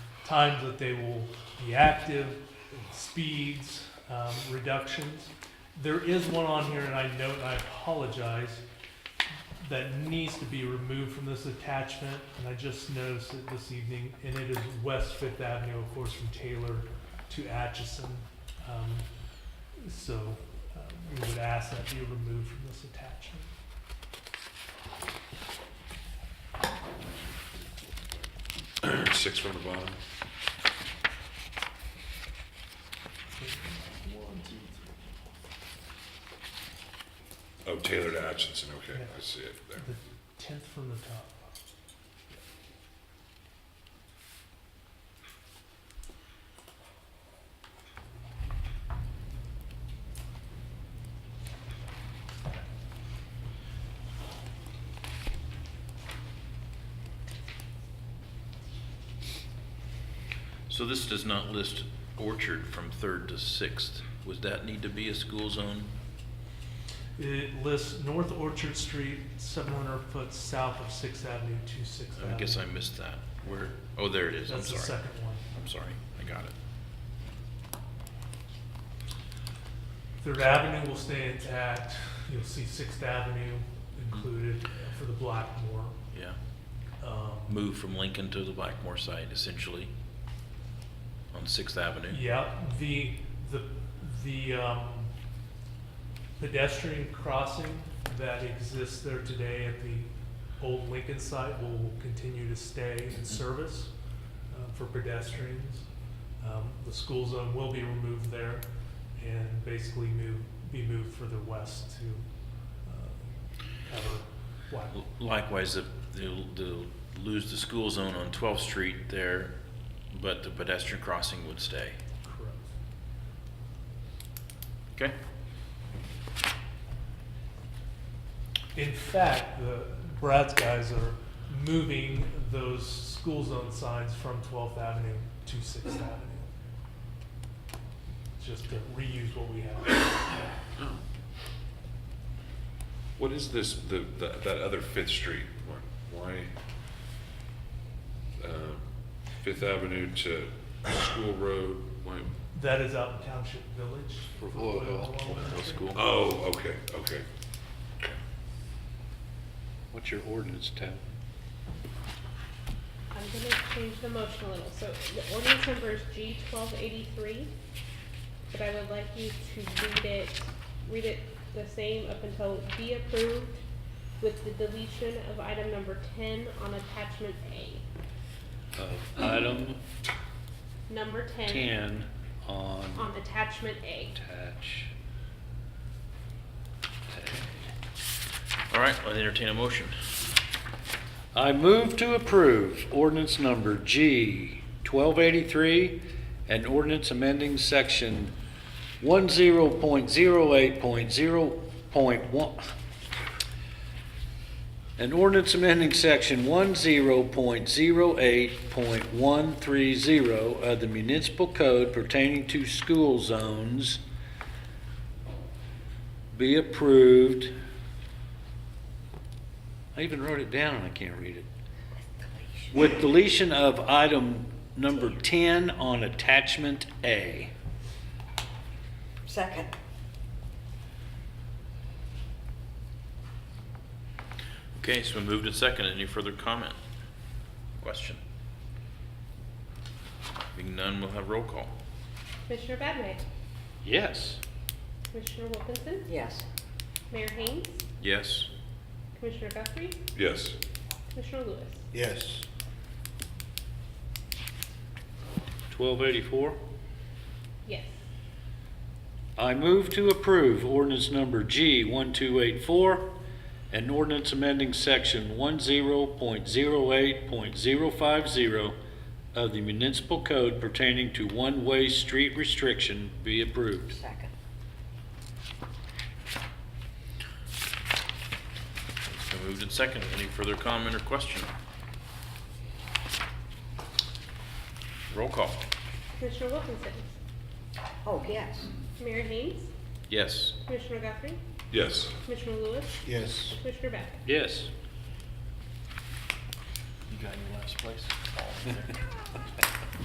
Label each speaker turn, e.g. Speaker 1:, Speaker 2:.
Speaker 1: times that they will be active, speeds, um, reductions. There is one on here, and I note, and I apologize, that needs to be removed from this attachment, and I just noticed it this evening, and it is West Fifth Avenue, of course, from Taylor to Atchison. Um, So uh, we would ask that be removed from this attachment.
Speaker 2: Six from the bottom. Oh, Taylor to Atchison, okay, I see it there.
Speaker 1: The tenth from the top.
Speaker 3: So this does not list Orchard from Third to Sixth. Would that need to be a school zone?
Speaker 1: It lists North Orchard Street, seven hundred foot south of Sixth Avenue to Sixth Avenue.
Speaker 3: I guess I missed that. Where, oh, there it is,
Speaker 1: Uh,
Speaker 3: I'm
Speaker 1: That's the
Speaker 3: sorry.
Speaker 1: second one.
Speaker 3: I'm sorry, I got it.
Speaker 1: Third Avenue will stay intact. You'll see Sixth Avenue included for the Blackmore.
Speaker 3: Yeah.
Speaker 1: Um,
Speaker 3: Move from Lincoln to the Blackmore site essentially on Sixth Avenue.
Speaker 1: Yeah, the, the, the um, pedestrian crossing that exists there today at the old Lincoln site will continue to stay in service uh, for pedestrians. Um, The school zone will be removed there and basically move, be moved further west to uh, cover Blackmore.
Speaker 3: Likewise, if they'll, they'll lose the school zone on Twelfth Street there, but the pedestrian crossing would stay.
Speaker 1: Correct.
Speaker 3: Okay?
Speaker 1: In fact, the Brad's guys are moving those school zone signs from 12th Avenue to Sixth Avenue. Just to reuse what we have.
Speaker 2: What is this, the, the- that other Fifth Street one? Why? um, Fifth Avenue to School Road, why?
Speaker 1: That is out in Township Village.
Speaker 4: Oh, school.
Speaker 2: Oh, okay, okay.
Speaker 4: What's your ordinance, Ted?
Speaker 5: I'm gonna change the motion a little, so the ordinance number is G twelve eighty-three, but I would like you to read it, read it the same up until be approved with the deletion of item number ten on attachment A,
Speaker 4: Of item
Speaker 5: number ten
Speaker 4: ten on
Speaker 5: on attachment A.
Speaker 4: attach.
Speaker 3: All right, I'll entertain a motion.
Speaker 4: I move to approve ordinance number G twelve eighty-three and ordinance amending section one zero point zero eight point zero point one. An ordinance amending section one zero point zero eight point one three zero of the municipal code pertaining to school zones be approved. I even wrote it down and I can't read it. With deletion of item number 10 on attachment A.
Speaker 6: Second.
Speaker 3: Okay, it's been moved and seconded. Any further comment? Question? Being none, we'll have roll call.
Speaker 5: Commissioner Badway,
Speaker 4: Yes.
Speaker 5: Commissioner Wilkinson,
Speaker 6: Yes.
Speaker 5: Mayor Haynes,
Speaker 3: Yes?
Speaker 5: Commissioner Guthrie,
Speaker 2: Yes,
Speaker 5: Commissioner Lewis.
Speaker 7: Yes.
Speaker 4: 1284.
Speaker 5: Yes.
Speaker 4: I move to approve ordinance number G 1284, an ordinance amending section 10.08.050 of the municipal code pertaining to one-way street restriction be approved.
Speaker 6: Second.
Speaker 3: It's been moved and seconded. Any further comment or question? Roll call.
Speaker 5: Commissioner Wilkinson,
Speaker 6: Oh, yes.
Speaker 5: Mayor Haynes,
Speaker 3: Yes?
Speaker 5: Commissioner Guthrie,
Speaker 2: yes.
Speaker 5: Commissioner Lewis,
Speaker 7: Yes.
Speaker 5: Commissioner Badway.
Speaker 4: Yes.
Speaker 3: You got your last place?